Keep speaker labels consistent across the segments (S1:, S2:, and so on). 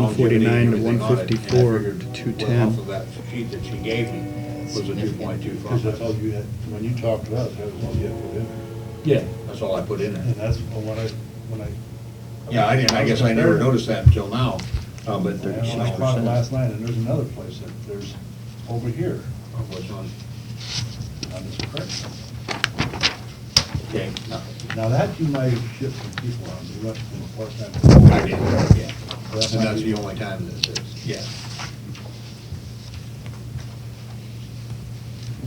S1: I'll give it to you,
S2: 149 to
S1: everything on it, and I
S2: 154
S1: figured
S2: to
S1: what
S2: 210.
S1: Off of that sheet that she gave me was a two point two
S3: Because that's all
S1: five.
S3: you had, when you talked to us, that was all you had put in there.
S4: Yeah,
S1: That's all I put in
S3: And
S1: there.
S3: that's when I, when I.
S1: Yeah, I didn't, I guess I never noticed that until now, uh, but
S3: And
S1: thirty-six
S3: when I bought it last
S1: percent.
S3: night, and there's another place that, there's over here,
S1: What's on,
S3: on this correction.
S1: okay, no,
S3: Now that you might have shifted some people on, you went from a part-time. to-
S1: I did, yeah.
S3: That
S1: And
S3: might
S1: that's
S3: be-
S1: the only time this is, yeah.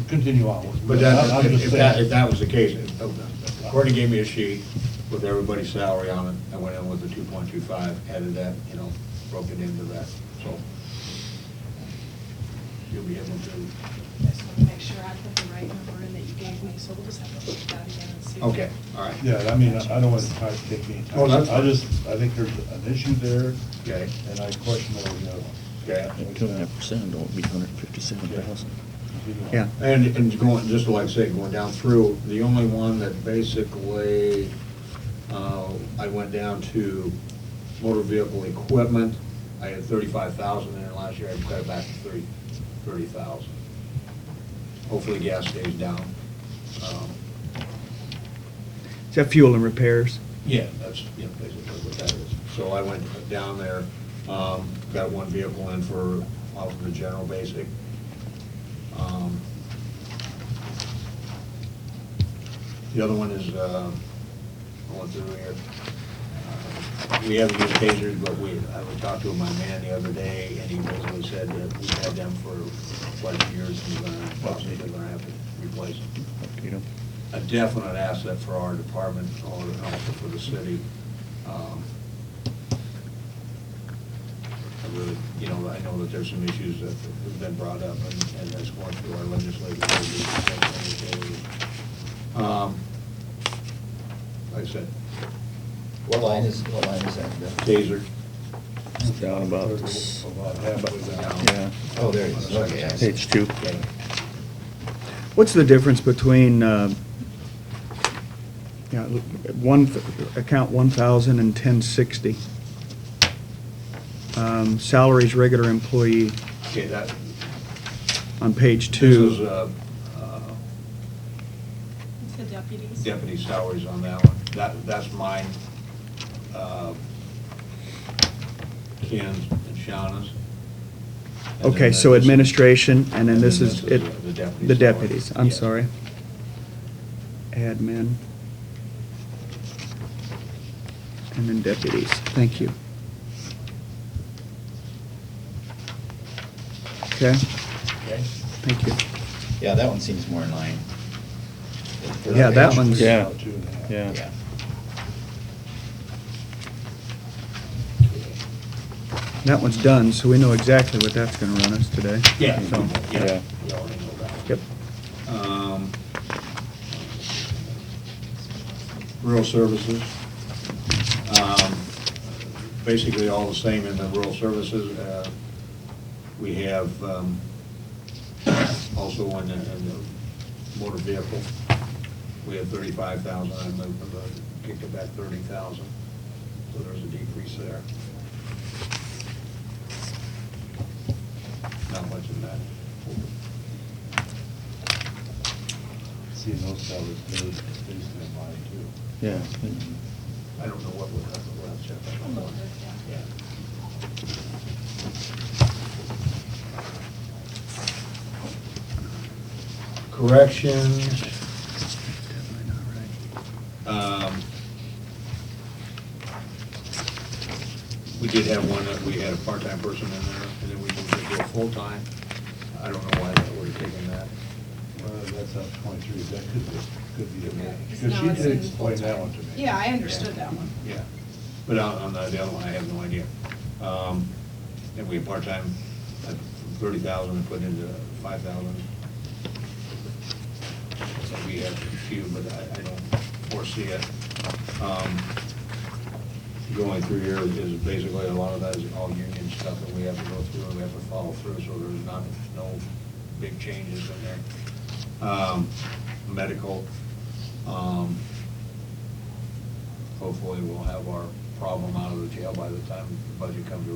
S3: Continue on.
S1: But
S3: I'm
S1: that,
S3: just
S1: if that,
S3: saying.
S1: if that was the case, if- Courtney gave me a sheet with everybody's salary on it, I went in with the two point two five, added that, you know, broke it into that, so. You'll be able to,
S5: Just want to make sure I put the right number in that you gave me, so we'll just have to look at that again and see.
S1: okay, all right.
S3: Yeah, I mean, I I don't want to try to take any time.
S1: Oh, that's
S3: I
S1: fine.
S3: just, I think there's an issue there,
S1: Okay,
S3: and I question whether we have.
S1: okay.
S4: two and a half percent, don't be hundred and fifty-seven thousand.
S3: Continue on.
S2: Yeah.
S1: And, and going, just like I say, going down through, the only one that basically, uh, I went down to motor vehicle equipment. I had thirty-five thousand in there last year, I cut it back to thirty, thirty thousand. Hopefully gas stays down. Um,
S2: Is that fuel and repairs?
S1: Yeah, that's, yeah, basically what that is. So I went down there, um, got one vehicle in for, off of the general basic. Um, The other one is, uh, going through here. Uh, We haven't used tasers, but we, I was talking to my man the other day, and he basically said that we've had them for quite a few years, and we're gonna, possibly gonna have to replace them a definite asset for our department, or also for the city. Um, I really, you know, I know that there's some issues that have been brought up, and and that's going through our legislative. Um, Like I said,
S6: What line is, what line is that? The-
S1: taser.
S4: Down about,
S3: About halfway down.
S4: yeah,
S6: Oh, there it is, okay. I see.
S4: page two.
S1: Okay.
S2: What's the difference between, uh, you know, one, account 1,000 and 1060? Um, Salaries, regular employee
S1: Okay, that,
S2: on page
S1: this
S2: two.
S1: is uh, uh,
S5: The deputies.
S1: deputy salaries on that one. That, that's mine, uh, Ken's and Shauna's. And then uh,
S2: Okay, so
S1: this-
S2: administration, and then this is, it,
S1: the deputies.
S2: the deputies, I'm
S1: Yes.
S2: sorry. Admin. And then deputies, thank you. Okay,
S6: Okay.
S2: thank you.
S6: Yeah, that one seems more in line.
S2: Yeah, that one's-
S4: Yeah.
S3: Two and a half.
S4: Yeah.
S6: Yeah.
S2: That one's done, so we know exactly what that's gonna run us today.
S1: Yeah,
S2: So,
S1: yeah.
S4: Yeah.
S1: we already know that.
S2: Yep,
S1: Um, Rural services. Um, Basically all the same in the rural services. Uh, We have um, also on the in the motor vehicle, we have thirty-five thousand, I moved, uh, kicked it back thirty thousand. So there's a decrease there. Not much in that.
S3: Seeing those salaries, those, those in line too.
S4: Yeah.
S1: I don't know what would happen without Jeff.
S5: I'll look at it,
S1: Yeah. Corrections. Um, We did have one, that we had a part-time person in there, and then we moved it to a full-time. I don't know why that we're taking that.
S3: Well, that's up twenty-three, that could be, could be. a
S5: Okay,
S3: bit.
S5: 'cause
S3: Because
S5: now
S3: she
S5: it's
S3: did
S5: in
S3: explain that
S5: full-time.
S3: one to me.
S5: Yeah, I understood that one.
S1: Yeah, but on, on the the other one, I have no idea. Um, and we had part-time, thirty thousand, and put into five thousand. So we have a few, but I, I don't foresee it. Um, Going through here is basically, a lot of that is all union stuff that we have to go through, and we have to follow through, so there's not, no big changes in there. Um, medical, um, hopefully we'll have our problem out of the jail by the time the budget comes around.